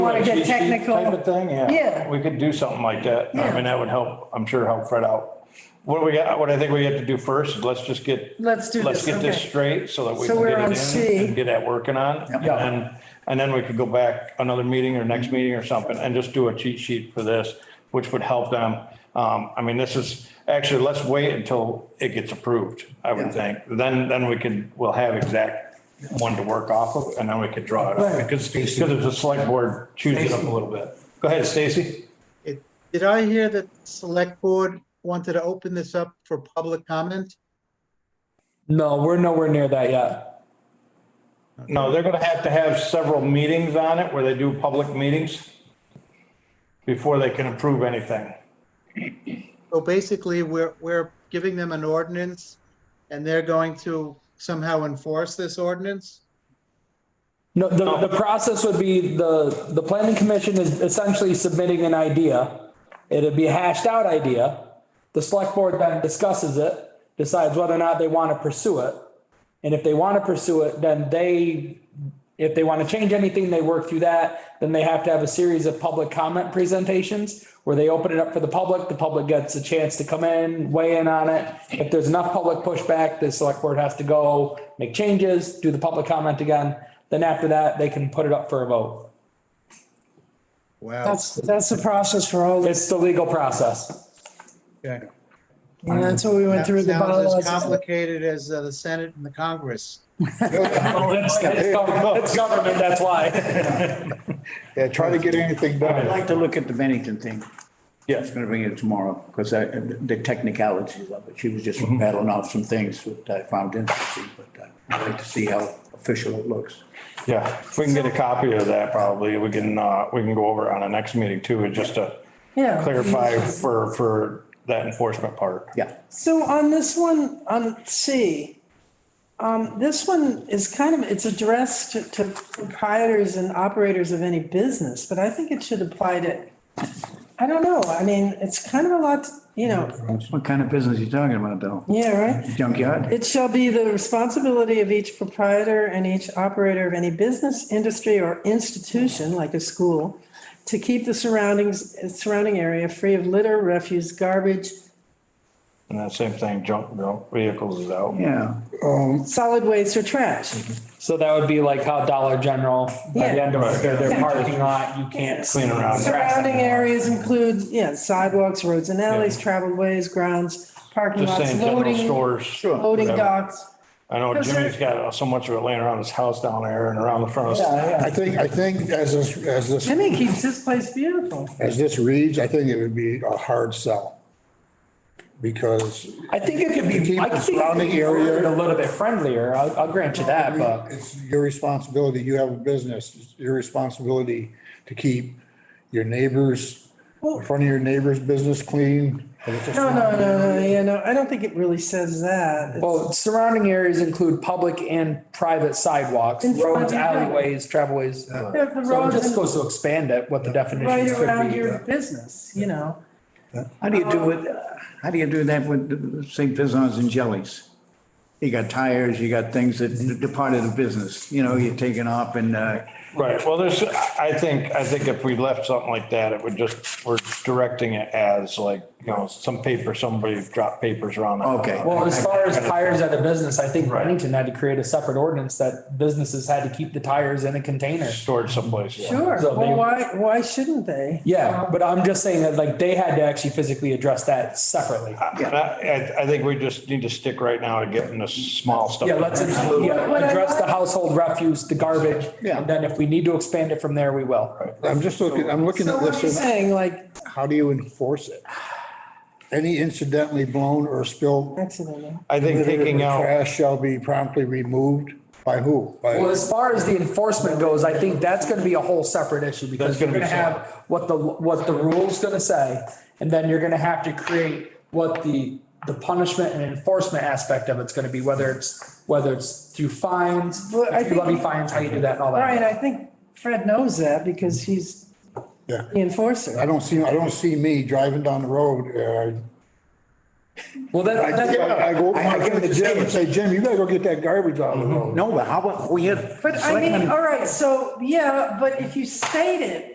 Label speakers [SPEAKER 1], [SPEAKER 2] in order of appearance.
[SPEAKER 1] Want to get
[SPEAKER 2] Cheat sheet
[SPEAKER 1] technical?
[SPEAKER 2] Type of thing, yeah.
[SPEAKER 1] Yeah.
[SPEAKER 2] We could do something like that. I
[SPEAKER 1] Yeah.
[SPEAKER 2] mean, that would help, I'm sure help Fred out. What do we, got- what I think we have to do first, is let's just get.
[SPEAKER 1] Let's do
[SPEAKER 2] Let's
[SPEAKER 1] this,
[SPEAKER 2] get this
[SPEAKER 1] okay.
[SPEAKER 2] straight so that we
[SPEAKER 1] So
[SPEAKER 2] can
[SPEAKER 1] we're
[SPEAKER 2] get
[SPEAKER 1] on
[SPEAKER 2] it
[SPEAKER 1] C.
[SPEAKER 2] in and get that working on. And
[SPEAKER 1] Yeah.
[SPEAKER 2] then, and then we could go back another meeting or next meeting or something and just do a cheat sheet for this, which would help them. Um, I mean, this is, actually, let's wait until it gets approved, I would
[SPEAKER 1] Yeah.
[SPEAKER 2] think. Then, then we can, we'll have exact one to work off of and then we could draw it up.
[SPEAKER 3] Right.
[SPEAKER 2] Because, because if the select board chews it up a little bit. Go ahead, Stacy.
[SPEAKER 4] It- Did I hear that select board wanted to open this up for public comment?
[SPEAKER 3] No, we're nowhere near that yet.
[SPEAKER 2] No, they're gonna have to have several meetings on it where they do public meetings before they can approve anything.
[SPEAKER 4] So basically, we're, we're giving them an ordinance and they're going to somehow enforce this ordinance?
[SPEAKER 3] No, the, the process would be the, the planning commission is essentially submitting an idea. It'd be a hashed out idea. The select board then discusses it, decides whether or not they want to pursue it. And if they want to pursue it, then they, if they want to change anything, they work through that. Then they have to have a series of public comment presentations where they open it up for the public. The public gets a chance to come in, weigh in on it. If there's enough public pushback, the select board has to go make changes, do the public comment again. Then after that, they can put it up for a vote.
[SPEAKER 4] Wow.
[SPEAKER 1] That's, that's the process for all, this.
[SPEAKER 3] It's the legal process.
[SPEAKER 4] okay.
[SPEAKER 1] and that's what we went
[SPEAKER 4] That
[SPEAKER 1] through the
[SPEAKER 4] Sounds as
[SPEAKER 1] bylaws.
[SPEAKER 4] complicated as uh, the Senate and the Congress.
[SPEAKER 3] It's government, it's government, that's why.
[SPEAKER 5] Yeah, try to get anything
[SPEAKER 6] I'd
[SPEAKER 5] done.
[SPEAKER 6] like to look at the Bennington thing.
[SPEAKER 2] Yes.
[SPEAKER 6] I'm going to bring it tomorrow because I, the technicalities of it. She was just rattling off some things that I found interesting, but uh, I'd like to see how official it looks.
[SPEAKER 2] Yeah, if we can get a copy of that, probably, we can, uh, we can go over it on the next meeting too, and just to
[SPEAKER 1] Yeah.
[SPEAKER 2] clarify for, for that enforcement part.
[SPEAKER 6] Yeah.
[SPEAKER 1] So on this one, on C, um, this one is kind of, it's addressed to- to proprietors and operators of any business, but I think it should apply to, I don't know, I mean, it's kind of a lot, you know,
[SPEAKER 6] What kind of business are you talking about though?
[SPEAKER 1] yeah, right?
[SPEAKER 6] Junkyard?
[SPEAKER 1] It shall be the responsibility of each proprietor and each operator of any business, industry, or institution, like a school, to keep the surroundings, surrounding area free of litter, refuse, garbage,
[SPEAKER 2] And that same thing, junk, junk vehicles is out.
[SPEAKER 6] Yeah.
[SPEAKER 1] solid waste, or trash.
[SPEAKER 3] So that would be like how Dollar General, by the
[SPEAKER 1] Yeah.
[SPEAKER 3] end of their, their parking lot, you can't
[SPEAKER 2] Clean around.
[SPEAKER 1] Surrounding areas include, yeah, sidewalks, roads and alleys, traveled ways, grounds, parking
[SPEAKER 2] Just
[SPEAKER 1] lots,
[SPEAKER 2] saying, general
[SPEAKER 1] loading,
[SPEAKER 2] stores.
[SPEAKER 1] loading
[SPEAKER 2] whatever.
[SPEAKER 1] docks.
[SPEAKER 2] I know Jimmy's got so much of it laying around his house down there and around the front of his.
[SPEAKER 5] I think, I think as this, as this,
[SPEAKER 1] Jimmy keeps this place beautiful.
[SPEAKER 5] as this reads, I think it would be a hard sell. Because
[SPEAKER 3] I think it could be,
[SPEAKER 5] Keep
[SPEAKER 3] I think it
[SPEAKER 5] the
[SPEAKER 3] could
[SPEAKER 5] surrounding
[SPEAKER 3] be
[SPEAKER 5] area-
[SPEAKER 3] worded a little bit friendlier. I'll, I'll grant you that, but
[SPEAKER 5] it's your responsibility, you have a business, it's your responsibility to keep your neighbors, in front of your neighbor's business clean. And it's just-
[SPEAKER 1] No, no, no, no, yeah, no, I don't think it really says that. It's-
[SPEAKER 3] well, surrounding areas include public and private sidewalks,
[SPEAKER 1] In front
[SPEAKER 3] roads,
[SPEAKER 1] of your house.
[SPEAKER 3] alleyways, travelways. So
[SPEAKER 1] Yeah, The
[SPEAKER 3] it
[SPEAKER 1] roads
[SPEAKER 3] just
[SPEAKER 1] and
[SPEAKER 3] goes to expand it, what the
[SPEAKER 1] right
[SPEAKER 3] definitions
[SPEAKER 1] around your
[SPEAKER 3] could be. uh,
[SPEAKER 1] business, you know?
[SPEAKER 6] How do you do it? How do you do that with the- say pizzazz and jellies? You got tires, you got things that departed the business, you know, you're taking off and, uh,
[SPEAKER 2] Right, well, there's, I think, I think if we left something like that, it would just, we're directing it as like, you know, some paper, somebody dropped papers around. the-
[SPEAKER 6] Okay.
[SPEAKER 3] Well, as far as tires at a business, I think Bennington had to create a separate ordinance that businesses had to keep the tires in a container.
[SPEAKER 2] Stored someplace. yeah.
[SPEAKER 1] Sure,
[SPEAKER 3] So they-
[SPEAKER 1] well, why, why shouldn't they?
[SPEAKER 3] Yeah, but I'm just saying that like they had to actually physically address that separately.
[SPEAKER 2] And I, I- I think we just need to stick right now to getting the small stuff.
[SPEAKER 3] Yeah, let's yeah,
[SPEAKER 1] What I
[SPEAKER 3] address the
[SPEAKER 1] like-
[SPEAKER 3] household refuse, the garbage,
[SPEAKER 6] Yeah.
[SPEAKER 3] and then if we need to expand it from there, we will.
[SPEAKER 5] I'm just looking, I'm looking
[SPEAKER 1] So
[SPEAKER 5] at
[SPEAKER 1] what are you
[SPEAKER 5] this, and
[SPEAKER 1] saying, like,
[SPEAKER 5] how do you enforce it? Any incidentally blown or spilled
[SPEAKER 1] accidentally?
[SPEAKER 2] I think
[SPEAKER 5] Litter
[SPEAKER 2] taking
[SPEAKER 5] or
[SPEAKER 2] out,
[SPEAKER 5] Trash shall be promptly removed by who?
[SPEAKER 3] Well,
[SPEAKER 5] By,
[SPEAKER 3] as far as the enforcement goes, I think that's gonna be a whole separate issue
[SPEAKER 2] That's
[SPEAKER 3] because you're
[SPEAKER 2] gonna
[SPEAKER 3] gonna
[SPEAKER 2] be
[SPEAKER 3] have what the, what the rule's gonna say. And then you're gonna have to create what the, the punishment and enforcement aspect of it's gonna be, whether it's, whether it's through fines,
[SPEAKER 1] Well, I
[SPEAKER 3] if you
[SPEAKER 1] think-
[SPEAKER 3] levy fines, how you do that and all
[SPEAKER 1] Brian,
[SPEAKER 3] that.
[SPEAKER 1] I think Fred knows that because he's
[SPEAKER 5] yeah.
[SPEAKER 1] the enforcer.
[SPEAKER 5] I don't see, I don't see me driving down the road.
[SPEAKER 3] Well, then,
[SPEAKER 5] uh, I
[SPEAKER 3] that's.
[SPEAKER 5] I- I go,
[SPEAKER 6] I- I
[SPEAKER 5] I go
[SPEAKER 6] give
[SPEAKER 5] to
[SPEAKER 6] the
[SPEAKER 5] Jim
[SPEAKER 6] Jim.
[SPEAKER 5] and say, Jim, you gotta go get that garbage out
[SPEAKER 6] Oh.
[SPEAKER 5] of the road.
[SPEAKER 6] no, but how about, we had.
[SPEAKER 1] But I mean, all right, so, yeah, but if you state it